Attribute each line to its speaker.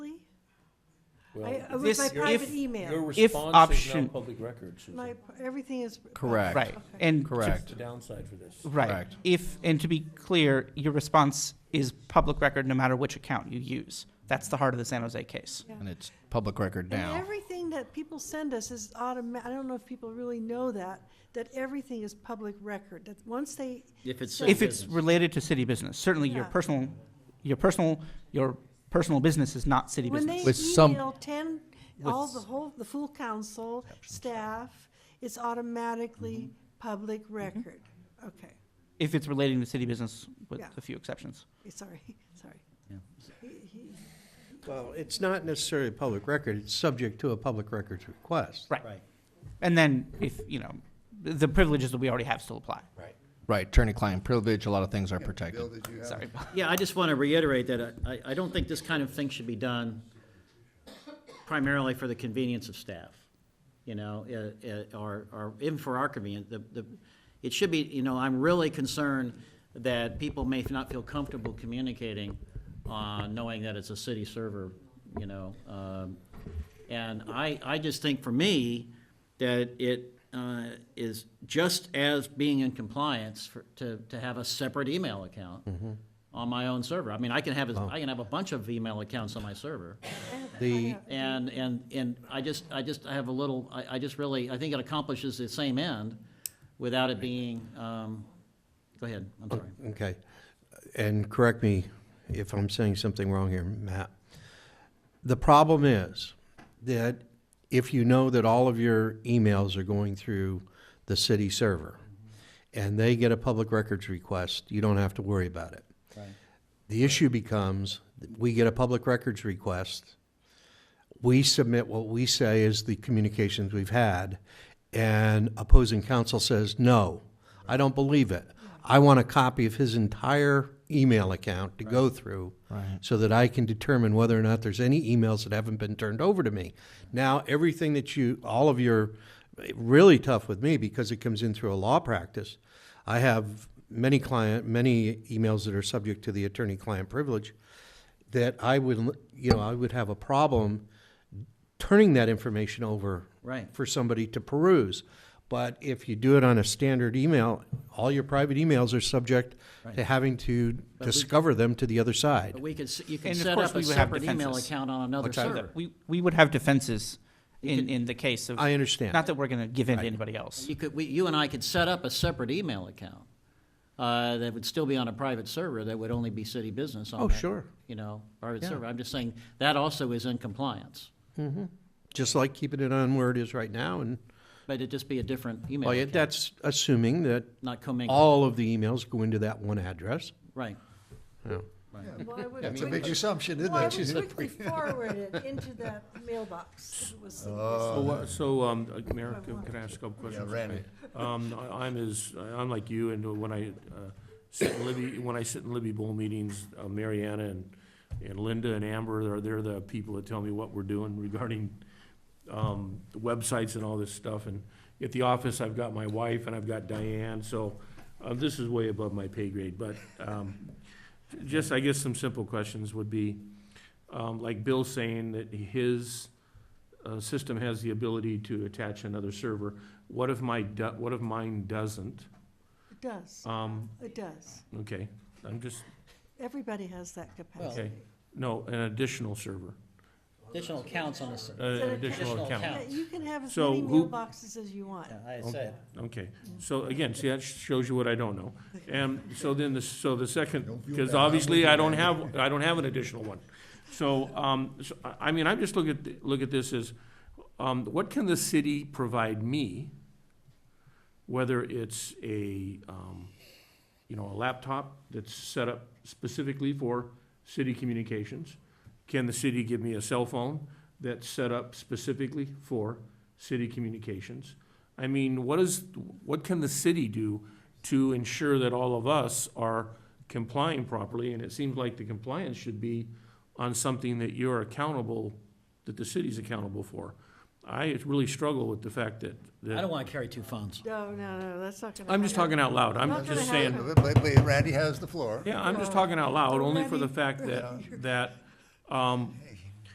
Speaker 1: I-
Speaker 2: Well,
Speaker 1: It was my
Speaker 3: This-
Speaker 1: private
Speaker 3: if
Speaker 2: Your
Speaker 1: email.
Speaker 2: response is now
Speaker 3: option-
Speaker 2: public record, Susan.
Speaker 1: My, everything is.
Speaker 4: Correct.
Speaker 3: Right,
Speaker 1: Okay.
Speaker 3: and. to-
Speaker 4: Correct.
Speaker 2: The downside for this.
Speaker 3: Right.
Speaker 4: Correct.
Speaker 3: If, and to be clear, your response is public record no matter which account you use. That's the heart of the San Jose case.
Speaker 1: Yeah.
Speaker 4: And it's public record
Speaker 1: And
Speaker 4: now.
Speaker 1: everything that people send us is automatic. I don't know if people really know that, that everything is public record, that once they.
Speaker 5: If it's
Speaker 3: If it's related to city business, certainly your
Speaker 1: Yeah.
Speaker 3: personal, your personal, your personal business is not city
Speaker 1: When
Speaker 3: business.
Speaker 1: they
Speaker 4: With some-
Speaker 1: email ten, all the
Speaker 3: With-
Speaker 1: whole, the full council, staff, it's automatically public record. Okay,
Speaker 3: If it's relating to city business, with
Speaker 1: Yeah.
Speaker 3: a few exceptions.
Speaker 1: sorry, sorry. He- he-
Speaker 6: Well, it's not necessarily a public record, it's subject to a public records request.
Speaker 3: Right. And then if, you know, th- the privileges that we already have still apply.
Speaker 6: Right.
Speaker 4: Right, attorney-client privilege, a lot of things are protected.
Speaker 3: Sorry.
Speaker 5: Yeah, I just want to reiterate that I, I don't think this kind of thing should be done primarily for the convenience of staff, you know, uh, uh, or, or even for our convenience. The, the, it should be, you know, I'm really concerned that people may not feel comfortable communicating, uh, knowing that it's a city server, you know. um, And I, I just think for me, that it, uh, is just as being in compliance for, to, to have a separate email account on my own server. I mean, I can have, a- I can have a bunch of email accounts on my server.
Speaker 6: The,
Speaker 5: And, and, and I just, I just, I have a little, I, I just really, I think it accomplishes the same end without it being, um, go ahead, I'm
Speaker 3: Oh.
Speaker 5: sorry.
Speaker 6: okay, and correct me if I'm saying something wrong here, Matt. The problem is that if you know that all of your emails are going through the city server, and they get a public records request, you don't have to worry about it. The issue becomes, we get a public records request, we submit what we say is the communications we've had, and opposing counsel says, no, I don't believe it. I want a copy of his entire email account to go through so that I can determine whether or not there's any emails that haven't been turned over to me. Now, everything that you, all of your, really tough with me because it comes in through a law practice. I have many client, many emails that are subject to the attorney-client privilege that I would, you know, I would have a problem turning that information over
Speaker 5: Right.
Speaker 6: for somebody to peruse. But if you do it on a standard email, all your private emails are subject to having to discover them to the other side.
Speaker 5: But we could, s- you could
Speaker 3: And of
Speaker 5: set
Speaker 3: course
Speaker 5: up a
Speaker 3: we would have
Speaker 5: separate email
Speaker 3: defenses.
Speaker 5: account on another server.
Speaker 3: We, we would have defenses in, in the case of.
Speaker 6: I understand.
Speaker 3: Not that we're going to give in to anybody else.
Speaker 5: You could, we, you and I could set up a separate email account, uh, that would still be on a private server, that would only be city business on
Speaker 6: Oh,
Speaker 5: that,
Speaker 6: sure.
Speaker 5: You know, private server. I'm just saying, that also is in compliance,
Speaker 6: Just like keeping it on where it is right now, and,
Speaker 5: but it'd just be a different email
Speaker 6: well, yeah,
Speaker 5: account,
Speaker 6: that's assuming that
Speaker 5: not commingled,
Speaker 6: all of the emails go into that one address.
Speaker 5: right.
Speaker 1: why would
Speaker 7: That's a
Speaker 1: we-
Speaker 7: big assumption, isn't
Speaker 1: Why
Speaker 7: it?
Speaker 1: would
Speaker 7: She's
Speaker 1: we quickly forward it into that mailbox? It was-
Speaker 2: So, uh, So, um, uh, Mayor, can- can I ask a couple
Speaker 7: Yeah,
Speaker 2: questions?
Speaker 7: Randy.
Speaker 2: Um, I- I'm as, I'm like you, and when I uh, sit in Libby, when I sit in Libby Bowl meetings, uh, Mariana and, and Linda and Amber, are they're the people that tell me what we're doing regarding um, the websites and all this stuff. And at the office, I've got my wife and I've got Diane, so uh, this is way above my pay grade. But um, j- just, I guess, some simple questions would be, um, like Bill saying that his uh, system has the ability to attach another server. What if my, do- what if mine doesn't?
Speaker 1: It does,
Speaker 2: Um,
Speaker 1: it does.
Speaker 2: okay, I'm just,
Speaker 1: Everybody has that
Speaker 2: okay,
Speaker 1: capacity.
Speaker 2: no, an additional server,
Speaker 5: Additional accounts on the s-
Speaker 2: uh, an additional
Speaker 5: Additional
Speaker 2: account.
Speaker 5: account.
Speaker 1: Yeah, You can have as
Speaker 2: So
Speaker 1: many
Speaker 2: who-
Speaker 1: mailboxes as you want.
Speaker 5: Yeah, I said,
Speaker 2: Okay, so again, see, that shows you what I don't know. And so then, the so the second,
Speaker 7: Don't feel
Speaker 2: because
Speaker 7: bad. I'm
Speaker 2: obviously
Speaker 7: with you,
Speaker 2: I don't
Speaker 7: man.
Speaker 2: have, I don't have an additional one. So, um, so, I, I mean, I'm just looking at, look at this as, um, what can the city provide me? Whether it's a, um, you know, a laptop that's set up specifically for city communications? Can the city give me a cell phone that's set up specifically for city communications? I mean, what is, what can the city do to ensure that all of us are complying properly? And it seems like the compliance should be on something that you're accountable, that the city's accountable for. I really struggle with the fact that,
Speaker 5: I don't
Speaker 2: that,
Speaker 5: want to carry two phones.
Speaker 1: No, no, no, that's not gonna.
Speaker 2: I'm just
Speaker 1: happen.
Speaker 2: talking out loud, I'm
Speaker 1: Not gonna
Speaker 2: just saying.
Speaker 1: happen.
Speaker 7: But- But but Randy has the floor.
Speaker 2: Yeah, I'm just talking out loud, only for the
Speaker 1: Ready?
Speaker 2: fact that, that, um,